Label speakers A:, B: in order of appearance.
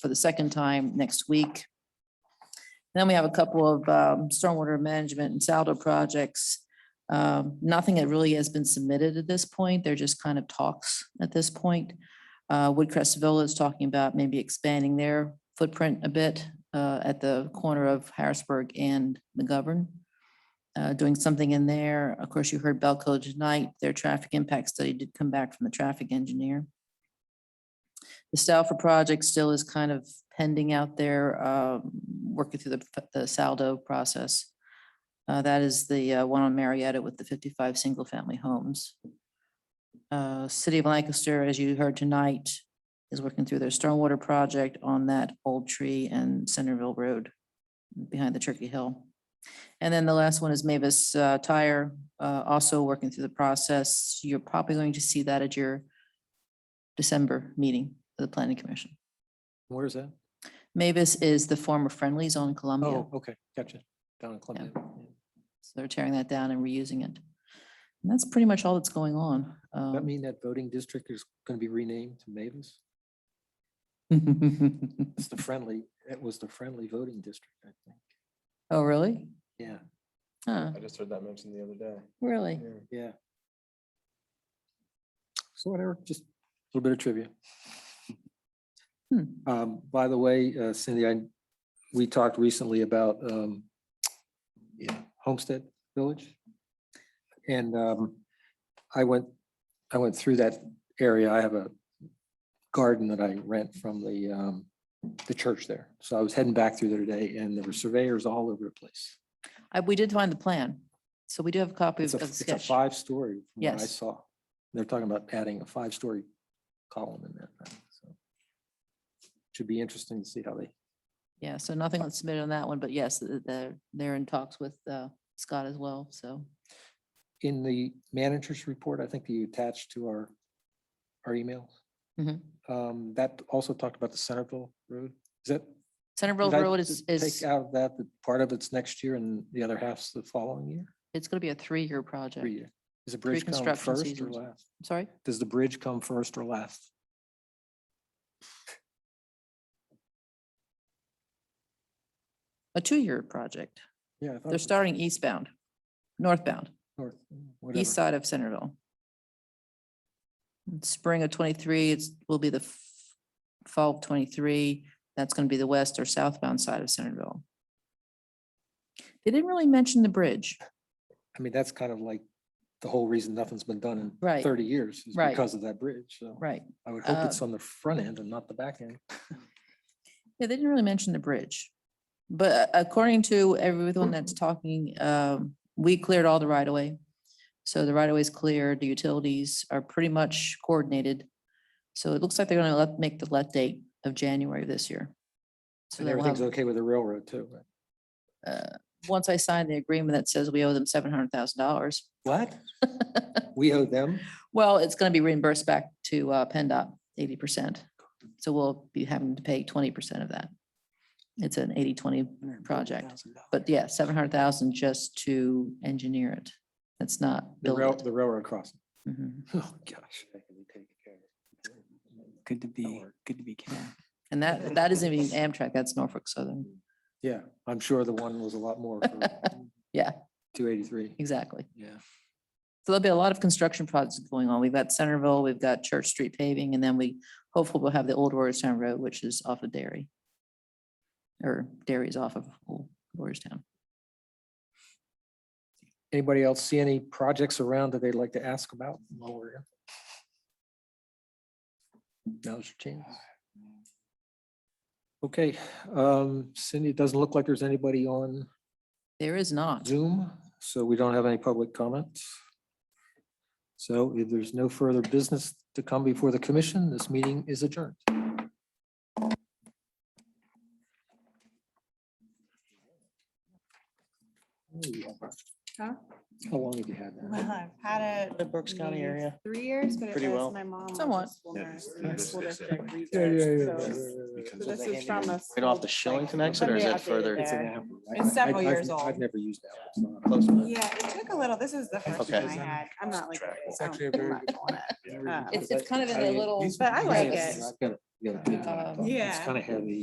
A: for the second time next week. Then we have a couple of um, stormwater management and saldo projects. Um, Nothing that really has been submitted at this point. They're just kind of talks at this point. Uh, Woodcrest Villa is talking about maybe expanding their footprint a bit uh, at the corner of Harrisburg and McGovern. uh, Doing something in there. Of course, you heard Belco tonight. Their traffic impact study did come back from the traffic engineer. The Stauffer project still is kind of pending out there, um, working through the, the saldo process. Uh, That is the uh, one on Marietta with the 55 single-family homes. Uh, City of Lancaster, as you heard tonight, is working through their stormwater project on that old tree and Centerville Road behind the Turkey Hill. And then the last one is Mavis uh, Tire, uh, also working through the process. You're probably going to see that at your December meeting of the Planning Commission.
B: Where is that?
A: Mavis is the former Friendlies on Columbia.
B: Oh, okay, gotcha. Down in Columbia.
A: So they're tearing that down and reusing it. And that's pretty much all that's going on.
B: Does that
A: um,
B: mean that voting district is going to be renamed to Mavis? It's the friendly, it was the friendly voting district, I think.
A: Oh, really?
B: Yeah,
A: Huh,
C: I just heard that mentioned the other day.
A: really?
B: yeah. So whatever, just a little bit of trivia.
A: Hmm.
B: Um, by the way, uh, Cindy, I, we talked recently about, um, yeah, Homestead Village. And, um, I went, I went through that area. I have a garden that I rent from the, um, the church there. So I was heading back through there today and there were surveyors all over the place.
A: I- We did find the plan. So we do have a copy of
B: It's a,
A: of the
B: it's a
A: sketch.
B: five-story. from what I
A: Yes.
B: saw. They're talking about adding a five-story column in that. thing, so. Should be interesting to see how they
A: Yeah, so nothing was submitted on that one, but yes, th- they're, they're in talks with uh, Scott as well, so.
B: in the manager's report, I think that you attached to our, our emails.
A: Mhm.
B: Um, that also talked about the Centerville Road. Is that?
A: Centerville
B: did I
A: Road is,
B: t-
A: is,
B: Take out of that, that part of it's next year and the other half's the following year,
A: it's going to be a three-year
B: three
A: project.
B: year. Does the bridge come
A: construction
B: first or
A: seasons.
B: last?
A: Sorry?
B: Does the bridge come first or last?
A: A two-year project.
B: Yeah. I thought it
A: They're
B: was
A: starting eastbound, northbound,
B: north, mm, whatever.
A: east side of Centerville. In Spring of twenty-three, it's, will be the f- fall of twenty-three. That's going to be the west or southbound side of Centerville. They didn't really mention the bridge.
B: I mean, that's kind of like the whole reason nothing's been done in
A: Right.
B: thirty years is
A: Right.
B: because of that bridge. So
A: Right.
B: I would hope it's
A: Uh,
B: on the front end and not the back end.
A: Yeah, they didn't really mention the bridge. But according to everyone that's talking, um, we cleared all the right of way. So the right of way is cleared, the utilities are pretty much coordinated. So it looks like they're gonna let, make the let date of January this year. So
B: And
A: they will
B: everything's
A: have,
B: okay with the railroad too. right?
A: uh, once I sign the agreement that says we owe them seven hundred thousand dollars,
B: What? We owe them?
A: well, it's gonna be reimbursed back to, uh, PennDOT eighty percent. So we'll be having to pay twenty percent of that. It's an 80-20 project. But yeah, seven hundred thousand just to engineer it. That's not
B: The
A: build
B: rail,
A: it.
B: the railroad crossing.
A: Mhm.
B: Oh, gosh.
D: Good to be,
B: work.
D: good to be cat.
A: And that, that isn't even Amtrak, that's Norfolk Southern.
B: Yeah, I'm sure the one was a lot more.
A: Yeah.
B: Two eighty-three.
A: Exactly.
B: Yeah.
A: So there'll be a lot of construction projects going on. We've got Centerville, we've got Church Street paving, and then we hopefully we'll have the old Warriorstown Road, which is off of Dairy. Or Dairy is off of Old Warriorstown.
B: Anybody else see any projects around that they'd like to ask about? while we're here? Now's your chance. Okay, um, Cindy, it doesn't look like there's anybody on
A: There is not.
B: Zoom, so we don't have any public comments. So if there's no further business to come before the commission, this meeting is adjourned.
E: Huh?
B: How long have you had that?
E: I've had it.
F: The Brooks County
E: maybe
F: area.
E: Three years, but it
F: Pretty well.
E: was my mom. was a
A: Somewhat.
E: school
C: Yeah,
E: nurse,
C: it's-
E: and the
C: it's-
E: school
C: it's-
E: district
C: yeah,
E: research, so- So
F: So
E: this
F: they
E: is
F: handed
E: from
F: it
E: a.
F: Right off
E: school,
F: the Shillings
E: like,
F: connection or is
E: somebody
F: that further?
E: updated
F: It's
E: there.
B: I-
E: It's several
B: I've-
E: years
B: I've- I've
E: old.
B: never used that.
F: Close enough.
E: Yeah, it took a little. This is the first
F: Okay.
E: one I had. I'm not like.
C: Track.
E: It's actually a very.
C: Yeah.
E: It's-
A: It's, it's kind of in a little.
E: But I like it.
B: I've got We got a big one.
A: Um,
B: It's
E: Yeah.
B: kind of heavy.